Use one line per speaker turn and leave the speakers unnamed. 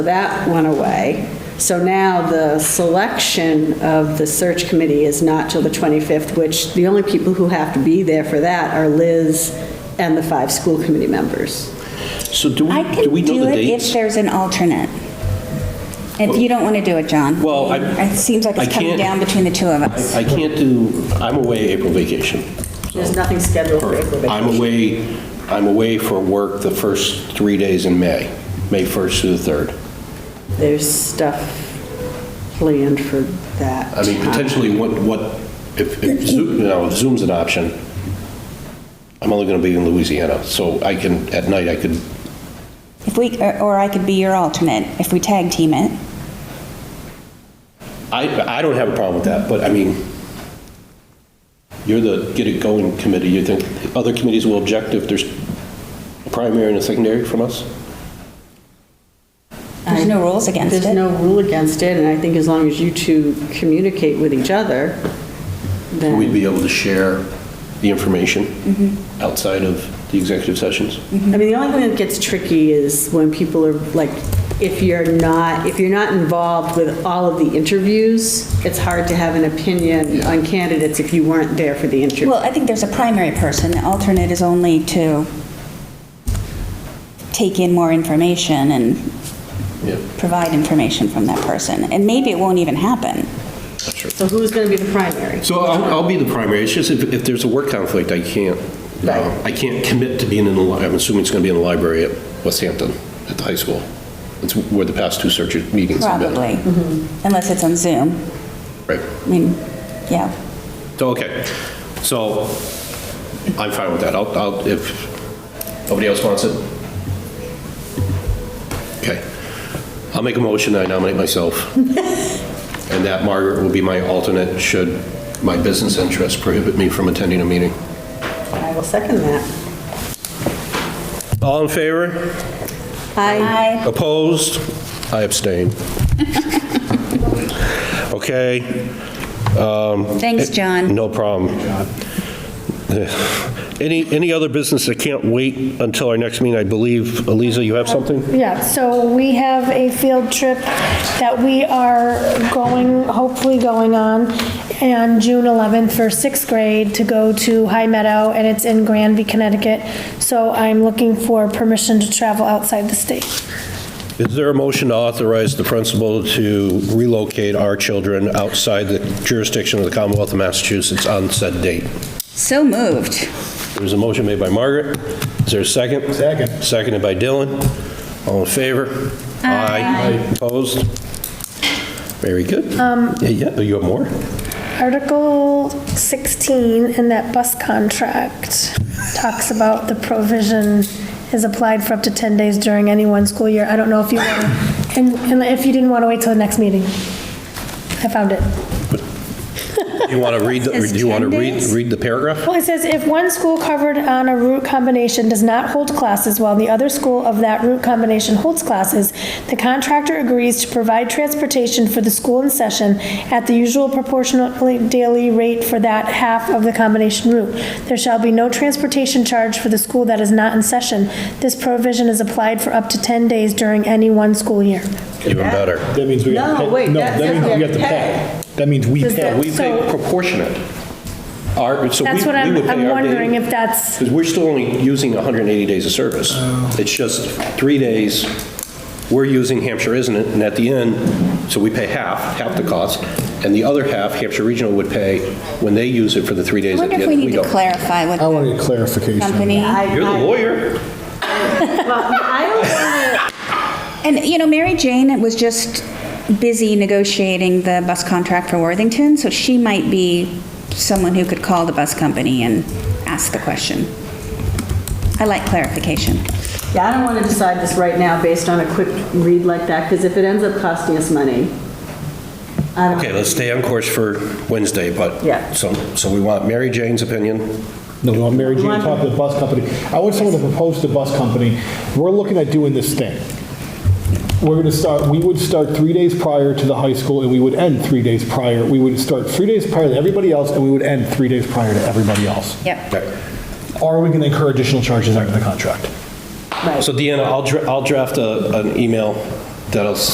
That went away. So now the selection of the search committee is not till the 25th, which the only people who have to be there for that are Liz and the five school committee members.
So do
I
we, do
can
we know
do
the
it if
dates?
there's an alternate. If you don't want to do it, John.
Well, I-
It seems like
I
it's coming
can't-
down between the two of us.
I can't do, I'm away April vacation.
There's nothing scheduled for April.
I'm away, I'm away for work the first three days in May, May 1st through the 3rd.
There's stuff planned for that.
I mean,
time.
potentially, what, what, if, if Zoom, you know, if Zoom's an option, I'm only going to be in Louisiana, so I can, at night, I could,
If we, or or I could be your alternate if we tag team it.
I, I don't have a problem with that, but I mean, you're the get it going committee, you think other committees will object if there's a primary and a secondary from us?
There's no rules against
There's
it.
no rule against it, and I think as long as you two communicate with each other, then.
We'd be able to share the information outside of the executive sessions?
I mean, the only thing that gets tricky is when people are, like, if you're not, if you're not involved with all of the interviews, it's hard to have an opinion on candidates if you weren't there for the interview.
Well, I think there's a primary person. The alternate is only to take in more information and
Yeah,
provide information from that person. And maybe it won't even happen.
that's true.
So who's going to be the primary?
So I'll, I'll be the primary, it's just if, if there's a work conflict, I can't, uh,
Right.
I can't commit to being in the, li- I'm assuming it's going to be in the library at West Hampton, at the high school. It's where the past two search meetings have been.
Probably,
Mm-hmm.
unless it's on Zoom.
Right.
I mean, yeah.
So, okay, so I'm fine with that. I'll, I'll, if nobody else wants it. Okay. I'll make a motion that I nominate myself and that Margaret will be my alternate should my business interests prohibit me from attending a meeting.
I will second that.
All in favor?
Aye.
Aye.
Opposed? I abstain. Okay. Um,
Thanks, John.
No problem. Any, any other business that can't wait until our next meeting? I believe, Eliza, you have something?
Yeah, so we have a field trip that we are going, hopefully going on, on June 11th for sixth grade to go to High Meadow, and it's in Granby, Connecticut. So I'm looking for permission to travel outside the state.
Is there a motion to authorize the principal to relocate our children outside the jurisdiction of the Commonwealth of Massachusetts on said date?
So moved.
There's a motion made by Margaret. Is there a second? Second. Seconded by Dylan. All in favor? Aye. Opposed? Very good. Yeah, Yeah, you have more?
Article 16 in that bus contract talks about the provision is applied for up to 10 days during any one school year. I don't know if you, want and and if you didn't want to wait till the next meeting. I found it.
You want to read, the-
It's
do you want to
10
read,
days?
read the paragraph?
Well, it says if one school covered on a route combination does not hold classes while the other school of that route combination holds classes, the contractor agrees to provide transportation for the school in session at the usual proportionally daily rate for that half of the combination route. There shall be no transportation charge for the school that is not in session. This provision is applied for up to 10 days during any one school year.
Even better.
That means we
No,
gotta pay.
wait, that-
that
that's
means
what
we have to
we
pay. That means we
Does
pay.
that-
We pay
So-
proportionate. Our, so we,
That's what
we
I'm,
would pay
I'm
our
wondering
daily.
if that's.
Because we're still only using 180 days of service. It's just three days, we're using Hampshire Isn't It, and at the end, so we pay half, half the cost, and the other half, Hampshire Regional would pay when they use it for the three
I
days at the
wonder
end
if
of
we
the
need to
week.
clarify what
I want
the
to get clarification.
company.
You're the lawyer.
And, you know, Mary Jane was just busy negotiating the bus contract for Worthington, so she might be someone who could call the bus company and ask the question. I like clarification.
Yeah, I don't want to decide this right now based on a quick read like that, because if it ends up costing us money, I don't,
Okay, let's stay on course for Wednesday, but.
Yeah.
So, so we want Mary Jane's opinion.
No, no, Mary Jane talked to the bus company. I want someone to propose to the bus company, we're looking at doing this thing. We're going to start, we would start three days prior to the high school, and we would end three days prior. We would start three days prior to everybody else, and we would end three days prior to everybody else.
Yep.
Are we going to incur additional charges under the contract?
right.
So Deanna, I'll, dra- I'll draft a, an email that'll